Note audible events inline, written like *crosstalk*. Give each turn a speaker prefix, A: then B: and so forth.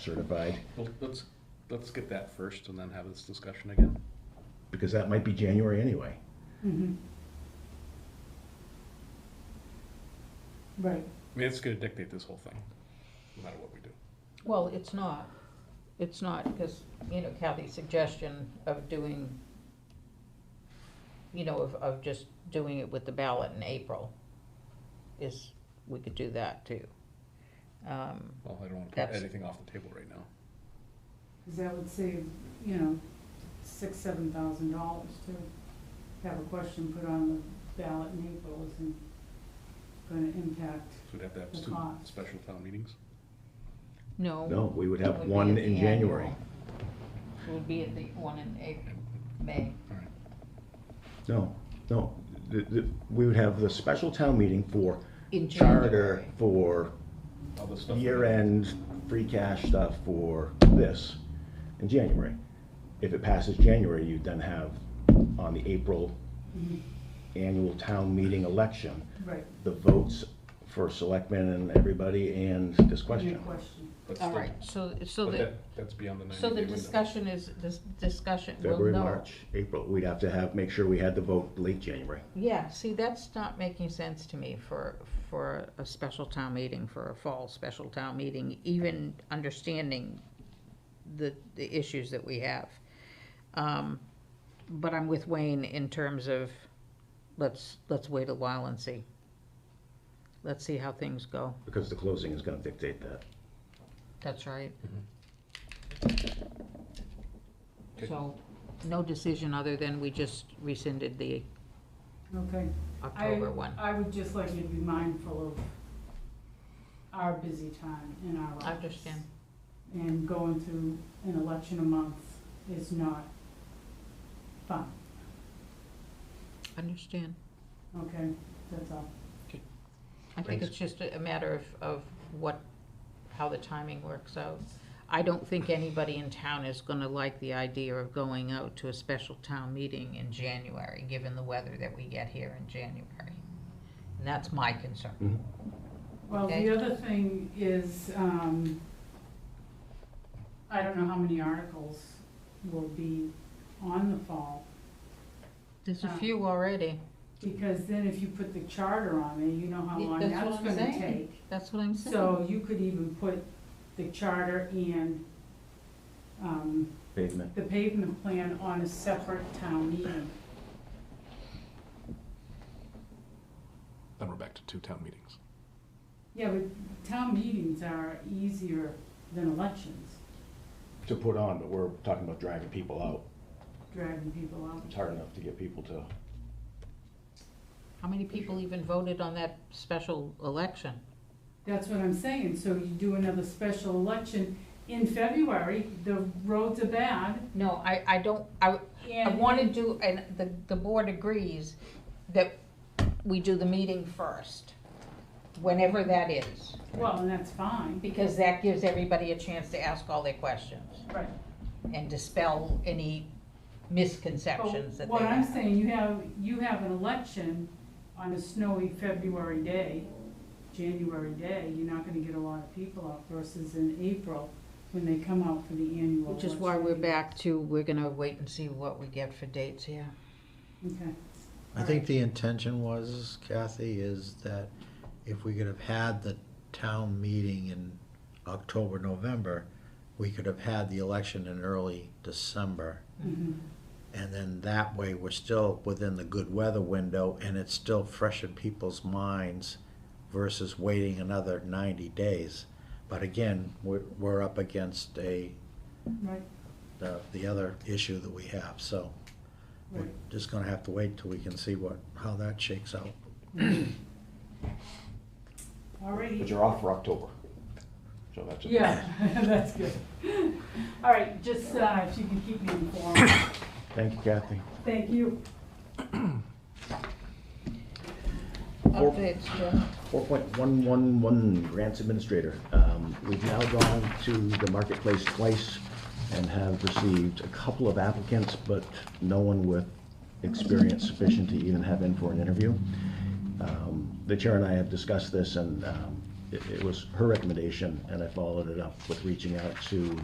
A: certified,
B: Well, let's, let's get that first and then have this discussion again.
A: because that might be January anyway.
C: Mm-hmm.
D: Right.
B: I mean, it's gonna dictate this whole thing, no matter what we do.
C: Well, it's not, it's not, because, you know, Kathy's suggestion of doing, you know, of, of just doing it with the ballot in April is, we could do that too. Um,
B: Well, I don't wanna put
C: That's-
B: anything off the table right now.
D: Because that would save, you know, six, seven thousand dollars to have a question put on the ballot in April isn't gonna impact,
B: So we'd have to have
D: The
B: two
D: cost.
B: special town meetings.
C: No.
A: No, we would
C: it
A: have
C: be
A: one
C: at the
A: in January.
C: annual. It would be at the one in April, May.
B: All right.
A: No, no, the, the, we would have the special town meeting for
C: In
A: charter,
C: January.
A: for
B: All this stuff.
A: year-end free cash stuff for this in January. If it passes January, you then have on the April
C: Mm-hmm.
A: annual town meeting election,
D: right,
A: the votes for selectmen and everybody and this
D: any
A: question.
D: question.
B: But
C: All
B: still-
C: right, so, so
B: But
C: the,
B: that, that's beyond the ninety day
C: so the
B: window.
C: discussion is, this discussion, we'll know.
A: February, March, April, we'd have to have, make sure we had the vote late January.
C: Yeah, see, that's not making sense to me for, for a special town meeting, for a fall special town meeting, even understanding the, the issues that we have. Um, but I'm with Wayne in terms of, let's, let's wait a while and see. Let's see how things go.
A: Because the closing is gonna dictate that.
C: That's right.
B: Okay.
C: So, no decision other than we just rescinded the
D: Okay. I-
C: October one.
D: I would just like you to be mindful of our busy time in our lives.
C: I understand.
D: And going through an election a month is not fun,
C: Understand.
D: okay? That's all.
C: I think
B: Thanks.
C: it's just a a matter of, of what, how the timing works out. I don't think anybody in town is gonna like the idea of going out to a special town meeting in January, given the weather that we get here in January. And that's my concern.
A: Mm-hmm.
D: Well,
C: Okay.
D: the other thing is, um, I don't know how many articles will be on the fall,
C: There's a
D: Um,
C: few already,
D: because then if you put the charter on there, you know how
C: Yeah,
D: long
C: that's
D: that's
C: what I'm
D: gonna
C: saying.
D: take.
C: that's what I'm saying.
D: So you could even put the charter and, um,
A: Pavement.
D: the pavement plan on a separate town meeting.
B: Then we're back to two town meetings.
D: Yeah, but town meetings are easier than elections,
A: To put on, but we're talking about dragging people out.
D: dragging people out.
A: It's hard enough to get people to,
C: How many people even voted on that special election?
D: That's what I'm saying, so you do another special election in February, the roads are bad,
C: No, I, I don't, I, I
D: and.
C: wanna do, and the, the board agrees that we do the meeting first, whenever that is.
D: Well, and that's fine,
C: Because that gives everybody a chance to ask all their questions
D: right,
C: and dispel any
D: but
C: misconceptions that they
D: what I'm
C: have.
D: saying, you have, you have an election on a snowy February day, January day, you're not gonna get a lot of people out versus in April, when they come out for the annual election.
C: Which is why we're back to, we're gonna wait and see what we get for dates here.
D: Okay,
E: I think the intention was, Kathy, is that if we could have had the town meeting in October, November, we could have had the election in early December.
D: mhm,
E: And then that way, we're still within the good weather window and it's still fresh in people's minds versus waiting another ninety days. But again, we're, we're up against a,
D: right,
E: the, the other issue that we have, so we're
D: right,
E: just gonna have to wait till we can see what, how that shakes out.
D: all righty.
A: but you're off for October. So that's. a-
D: Yeah, *laughs* that's good. All right, just, uh, if you can keep me informed,
A: Thank you, Kathy.
D: thank you.
A: Four-
C: Updates, Jim.
A: Four point one one one, grants administrator. Um, we've now gone to the marketplace twice and have received a couple of applicants, but no one with experience sufficient to even have in for an interview. Um, The chair and I have discussed this and, um, it, it was her recommendation, and I followed it up with reaching out to